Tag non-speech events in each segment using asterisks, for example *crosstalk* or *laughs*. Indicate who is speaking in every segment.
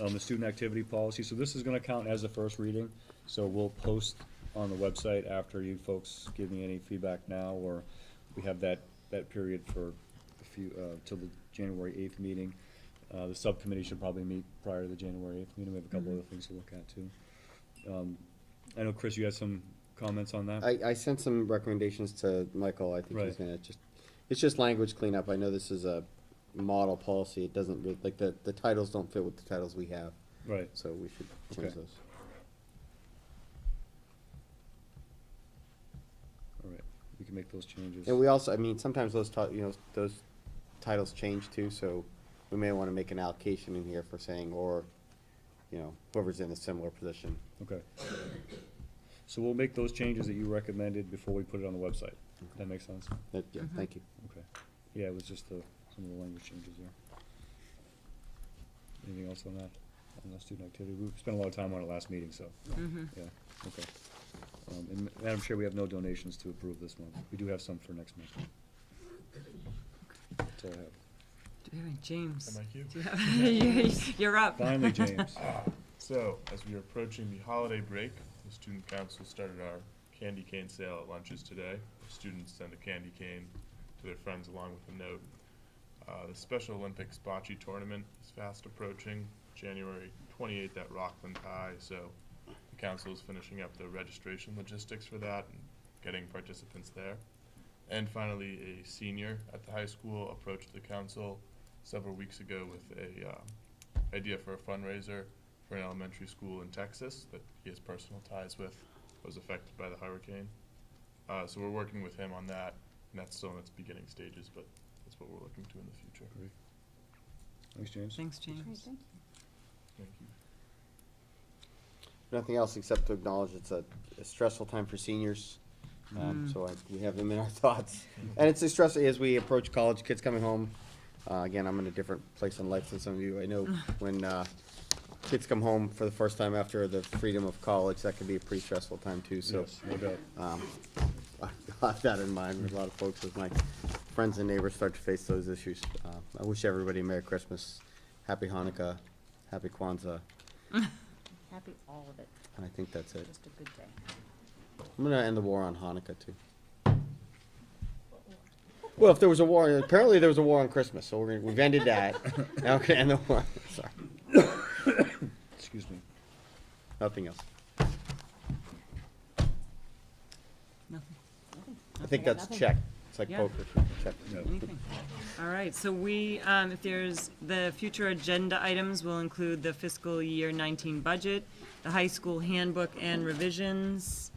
Speaker 1: um, the student activity policy, so this is gonna count as a first reading, so we'll post on the website after you folks give me any feedback now, or we have that, that period for a few, uh, till the January eighth meeting. Uh, the subcommittee should probably meet prior to the January eighth meeting, we have a
Speaker 2: Mm-hmm.
Speaker 1: couple other things to look at too. Um, I know, Chris, you had some comments on that?
Speaker 2: I, I sent some recommendations to Michael, I think he's
Speaker 1: Right.
Speaker 2: gonna just, it's just language cleanup, I know this is a model policy, it doesn't, re- like, the, the titles don't fit with the titles we have,
Speaker 1: Right,
Speaker 2: so we should change
Speaker 1: Okay.
Speaker 2: those.
Speaker 1: all right, we can make those changes.
Speaker 2: And we also, I mean, sometimes those, ti- you know, those titles change too, so we may wanna make an allocation in here for saying, or, you know, whoever's in a similar position.
Speaker 1: Okay. So we'll make those changes that you recommended before we put it on the website. That makes sense?
Speaker 2: That- Yeah, thank you.
Speaker 1: Okay. Yeah, it was just the, some of the language changes there. Anything else on that, on the student activity? We spent a lot of time on it last meeting, so,
Speaker 3: Mm-hmm.
Speaker 1: yeah, okay. Um, and Madam Chair, we have no donations to approve this month. We do have some for next month. That's all I have.
Speaker 3: Do we have any James?
Speaker 4: Am I cute?
Speaker 3: Do you *laughs* have- You're up. *laughs*
Speaker 1: Finally, James.
Speaker 4: So, as we are approaching the holiday break, the student council started our candy cane sale at lunches today. Students send a candy cane to their friends along with a note. Uh, the Special Olympics bocce tournament is fast approaching, January twenty-eighth at Rockland High, so the council is finishing up the registration logistics for that and getting participants there. And finally, a senior at the high school approached the council several weeks ago with a, uh, idea for a fundraiser for an elementary school in Texas that he has personal ties with, was affected by the hurricane. Uh, so we're working with him on that, and that's still in its beginning stages, but that's what we're looking to in the future.
Speaker 1: Great. Thanks, James.
Speaker 3: Thanks, James.
Speaker 4: Thank you.
Speaker 2: Nothing else except to acknowledge it's a a stressful time for seniors, um,
Speaker 3: Mm.
Speaker 2: so I, we have them in our *laughs* thoughts. And it's a stress as we approach college, kids coming home. Uh, again, I'm in a different place in life than some of you. I know when, uh, kids come home for the first time after the freedom of college, that can be a pretty stressful time too, so.
Speaker 1: Yes, no doubt.
Speaker 2: Um, *laughs* I've got that in mind with a lot of folks, as my friends and neighbors start to face those issues. Uh, I wish everybody a Merry Christmas, Happy Hanukkah, Happy Kwanzaa,
Speaker 5: Happy all of it,
Speaker 2: and I think that's it.
Speaker 5: just a good day.
Speaker 2: I'm gonna end the war on Hanukkah too. Well, if there was a war, apparently there was a war on Christmas, so we're gonna, we've ended that. Now we're gonna end the war. Sorry,
Speaker 1: Excuse me.
Speaker 2: nothing else.
Speaker 3: Nothing,
Speaker 2: I think
Speaker 5: I got
Speaker 2: that's
Speaker 5: nothing.
Speaker 2: check. It's like
Speaker 3: Yeah.
Speaker 2: poker. Check.
Speaker 1: No.
Speaker 3: anything. All right, so we, um, if there's, the future agenda items will include the fiscal year nineteen budget, the high school handbook and revisions,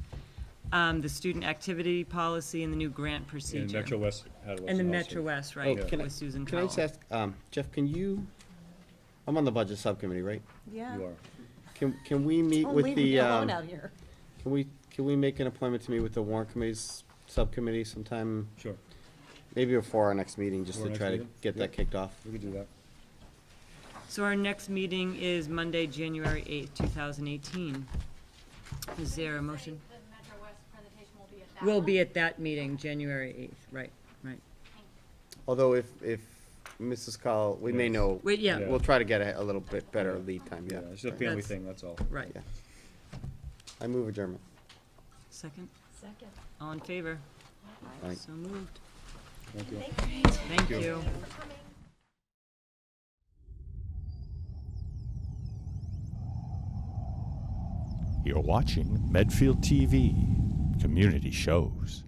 Speaker 3: um, the student activity policy, and the new grant procedure.
Speaker 1: And Metro West had a.
Speaker 3: And the Metro West, right,
Speaker 2: Oh, can I-
Speaker 3: with Susan
Speaker 2: Can I just
Speaker 3: Cowell.
Speaker 2: ask, um, Jeff? Can you? I'm on the budget subcommittee, right?
Speaker 5: Yeah.
Speaker 1: You are.
Speaker 2: Can Can we meet
Speaker 5: Don't
Speaker 2: with
Speaker 5: Oh, leave
Speaker 2: the?
Speaker 5: me alone
Speaker 2: um,
Speaker 5: out here.
Speaker 2: Can we Can we make an appointment to meet with the warrant committee's subcommittee sometime?
Speaker 1: Sure,
Speaker 2: Maybe before our next meeting, just
Speaker 1: Before our
Speaker 2: to
Speaker 1: next
Speaker 2: try to
Speaker 1: meeting?
Speaker 2: get that
Speaker 1: Yeah.
Speaker 2: kicked off.
Speaker 1: we can do that.
Speaker 3: So our next meeting is Monday, January eighth, two thousand eighteen. Is there a motion?
Speaker 6: The Metro West presentation will be at that
Speaker 3: Will
Speaker 6: one?
Speaker 3: be at that meeting, January eighth, right, right.
Speaker 2: Although if if Mrs. Call, we may
Speaker 1: Yes.
Speaker 2: know.
Speaker 3: Wait, yeah,
Speaker 1: Yeah.
Speaker 2: We'll try to get a, a little bit better
Speaker 1: Yeah.
Speaker 2: lead time,
Speaker 1: Yeah,
Speaker 2: yeah.
Speaker 1: it's just a
Speaker 2: Right.
Speaker 1: family
Speaker 3: That's-
Speaker 1: thing, that's all.
Speaker 3: right.
Speaker 2: Yeah. I move adjournment.
Speaker 3: Second,
Speaker 5: Second.
Speaker 3: all in favor?
Speaker 2: Aye.
Speaker 3: So moved.
Speaker 1: Thank you.
Speaker 3: Thank you.
Speaker 7: You're watching Medfield TV Community Shows.